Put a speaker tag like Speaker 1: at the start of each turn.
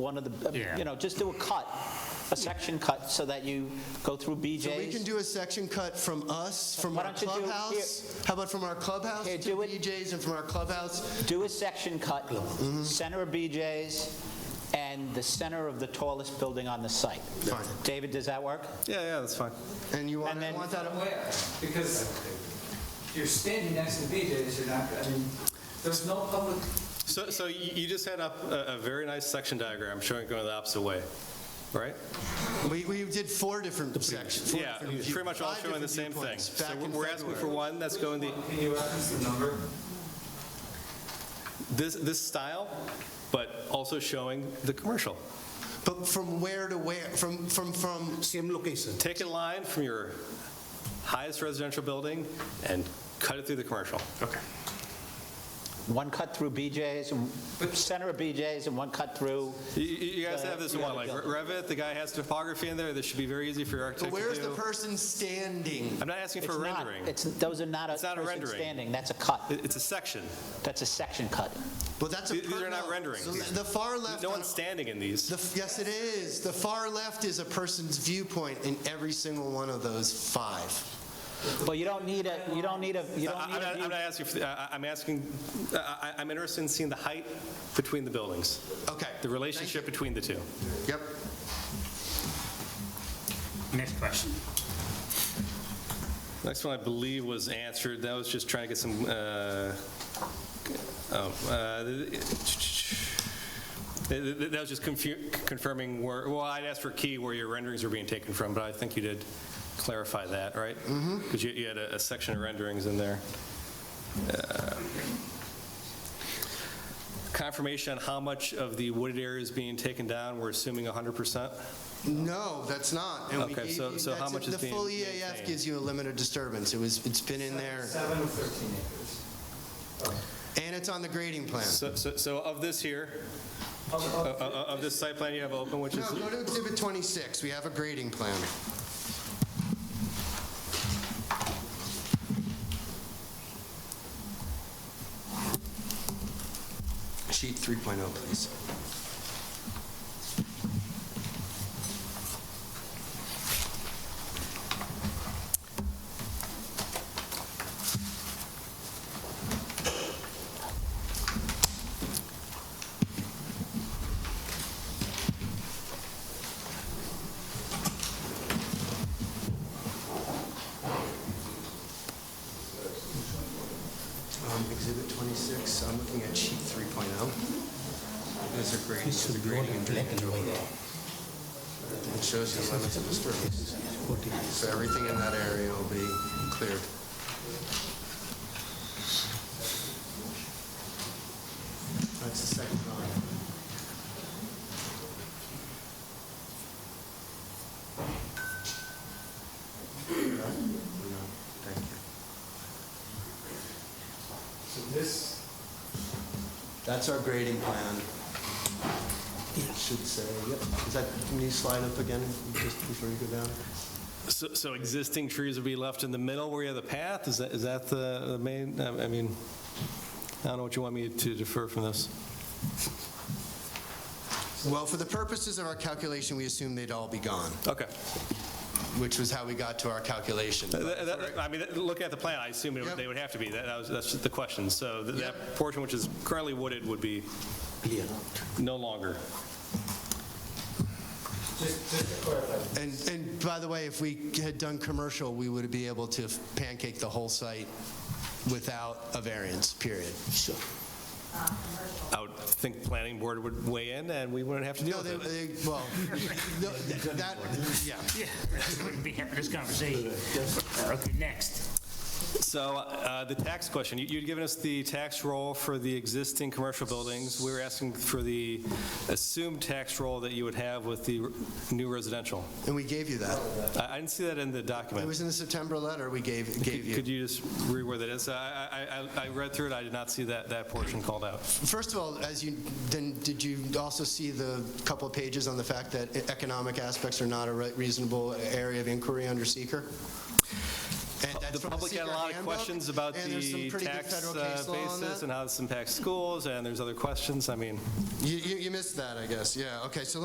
Speaker 1: one of the, uh,
Speaker 2: Yeah.
Speaker 1: you know, just do a cut, a section cut, so that you go through
Speaker 3: So we can
Speaker 1: BJ's.
Speaker 3: do a section cut from us, from
Speaker 1: Why
Speaker 3: our
Speaker 1: don't you do-
Speaker 3: clubhouse. How about from our clubhouse
Speaker 1: Here,
Speaker 3: to
Speaker 1: do it.
Speaker 3: BJ's and from our clubhouse?
Speaker 1: Do a section cut, center of BJ's and the center of the tallest building on the site.
Speaker 3: Fine.
Speaker 1: David, does that work?
Speaker 4: Yeah, yeah, that's fine.
Speaker 3: And you want,
Speaker 1: And then-
Speaker 3: want that,
Speaker 5: Where? Because you're standing next to BJ's, you're not, I mean, there's no public,
Speaker 4: So, so you you just had up a, a very nice section diagram showing it going the opposite way, right?
Speaker 3: we, we did four different sections. four
Speaker 4: Yeah,
Speaker 3: different view-
Speaker 4: pretty much all
Speaker 3: five
Speaker 4: showing the same
Speaker 3: different
Speaker 4: thing.
Speaker 3: viewpoints
Speaker 4: So
Speaker 3: back
Speaker 4: we're-
Speaker 3: in
Speaker 4: we're asking for
Speaker 3: February.
Speaker 4: one that's going the,
Speaker 5: can you reference the number?
Speaker 4: this, this style, but also showing the commercial.
Speaker 3: But from where to where, from, from, from,
Speaker 6: same location.
Speaker 4: Take a line from your highest residential building and cut it through the commercial. Okay.
Speaker 1: One cut through BJ's, and- center of BJ's and one cut through,
Speaker 4: You, you you guys have this in
Speaker 1: Yeah,
Speaker 4: one, like
Speaker 1: yeah.
Speaker 4: Revit, the guy has topography in there, this should be very easy for your
Speaker 3: but
Speaker 4: architect to
Speaker 3: where's the
Speaker 4: do.
Speaker 3: person standing?
Speaker 4: I'm not asking
Speaker 1: it's
Speaker 4: for
Speaker 1: not,
Speaker 4: rendering. It-
Speaker 1: it's, those are not a
Speaker 4: It's not a
Speaker 1: person
Speaker 4: rendering.
Speaker 1: standing, that's a cut,
Speaker 4: It's a section.
Speaker 1: that's a section cut.
Speaker 3: Well, that's a.
Speaker 4: These- these
Speaker 3: per-
Speaker 4: are not
Speaker 3: no.
Speaker 4: rendering.
Speaker 3: So The far left.
Speaker 4: No
Speaker 3: on-
Speaker 4: one's standing in these.
Speaker 3: The, f- yes, it is. The far left is a person's viewpoint in every single one of those five.
Speaker 1: Well, you don't need a, you don't need a, you
Speaker 4: I-
Speaker 1: don't
Speaker 4: I'm
Speaker 1: need a
Speaker 4: not,
Speaker 1: view
Speaker 4: I'm not asking, for the- I- I- I'm asking, I- I- I'm interested in seeing the height between the buildings,
Speaker 3: Okay.
Speaker 4: the relationship between the two.
Speaker 3: Yep.
Speaker 2: Next question.
Speaker 4: Next one, I believe, was answered, that was just trying to get some, uh, oh, uh, th- th- that was just confu- confirming where, well, I'd asked for key where your renderings were being taken from, but I think you did clarify that, right? Mm-hmm. Because you had a a section of renderings in there. Uh, confirmation on how much of the wooded area is being taken down, we're assuming 100%?
Speaker 3: No, that's not. And we
Speaker 4: Okay,
Speaker 3: gave
Speaker 4: so-
Speaker 3: you-
Speaker 4: so how
Speaker 3: that's-
Speaker 4: much is
Speaker 3: The
Speaker 4: being
Speaker 3: full EAF
Speaker 4: maintained?
Speaker 3: gives you a limit of disturbance. It was, it's been in there,
Speaker 5: Seven or 13 acres.
Speaker 3: and it's on the grading plan.
Speaker 4: So, so so of this here,
Speaker 5: Of-
Speaker 4: o- o-
Speaker 5: of-
Speaker 4: o- of this site plan you have open, which is,
Speaker 3: No, go to exhibit 26. We have a grading plan. Sheet 3.0, please. Um, Exhibit 26, I'm looking at sheet 3.0. There's a grading, there's a grading and drainage overall. It shows you the limits of disturbance. So everything in that area will be cleared. That's the second drawing. No, thank you.
Speaker 5: So this,
Speaker 3: That's our grading plan. It should say, yep. Is that, can you slide up again just before you go down?
Speaker 4: so so existing trees would be left in the middle where you have the path? Is that, is that the the main, I I mean, I don't know what you want me to defer from this.
Speaker 3: Well, for the purposes of our calculation, we assumed they'd all be gone,
Speaker 4: Okay.
Speaker 3: which was how we got to our calculation.
Speaker 4: Th- th- th- I mean, look at the plan, I assume it would-
Speaker 3: Yep.
Speaker 4: they would have to be, That- that was, that's the question. So th- that
Speaker 3: Yep.
Speaker 4: portion which is currently wooded would be no longer.
Speaker 5: just just to clarify,
Speaker 3: And, and by the way, if we had done commercial, we would be able to pancake the whole site without a variance, period. Sure.
Speaker 4: I would think planning board would weigh in and we wouldn't have to deal
Speaker 3: No,
Speaker 4: with
Speaker 3: they,
Speaker 4: it.
Speaker 3: they- well, no, that, yeah.
Speaker 2: Wouldn't be having this conversation. Okay, next.
Speaker 4: So uh, the tax question, You- you'd given us the tax roll for the existing commercial buildings. We were asking for the assumed tax roll that you would have with the new residential.
Speaker 3: And we gave you that.
Speaker 4: I I didn't see that in the
Speaker 3: It
Speaker 4: document.
Speaker 3: was in the September letter we gave, gave you.
Speaker 4: Could you just read where that is? I- I I- I read through it, I did not see that that portion called out.
Speaker 3: First of all, as you, then, did you also see the couple of pages on the fact e-, that economic aspects are not a re- reasonable area of inquiry under seeker? And that's
Speaker 4: The
Speaker 3: from
Speaker 4: public had a
Speaker 3: secret
Speaker 4: lot of
Speaker 3: handbook,
Speaker 4: questions about
Speaker 3: and there's some
Speaker 4: the
Speaker 3: pretty good
Speaker 4: tax
Speaker 3: federal
Speaker 4: uh,
Speaker 3: case law on
Speaker 4: basis
Speaker 3: that.
Speaker 4: and how this impacts schools, and there's other questions, I mean.
Speaker 3: You, you you missed that, I guess, yeah, okay, so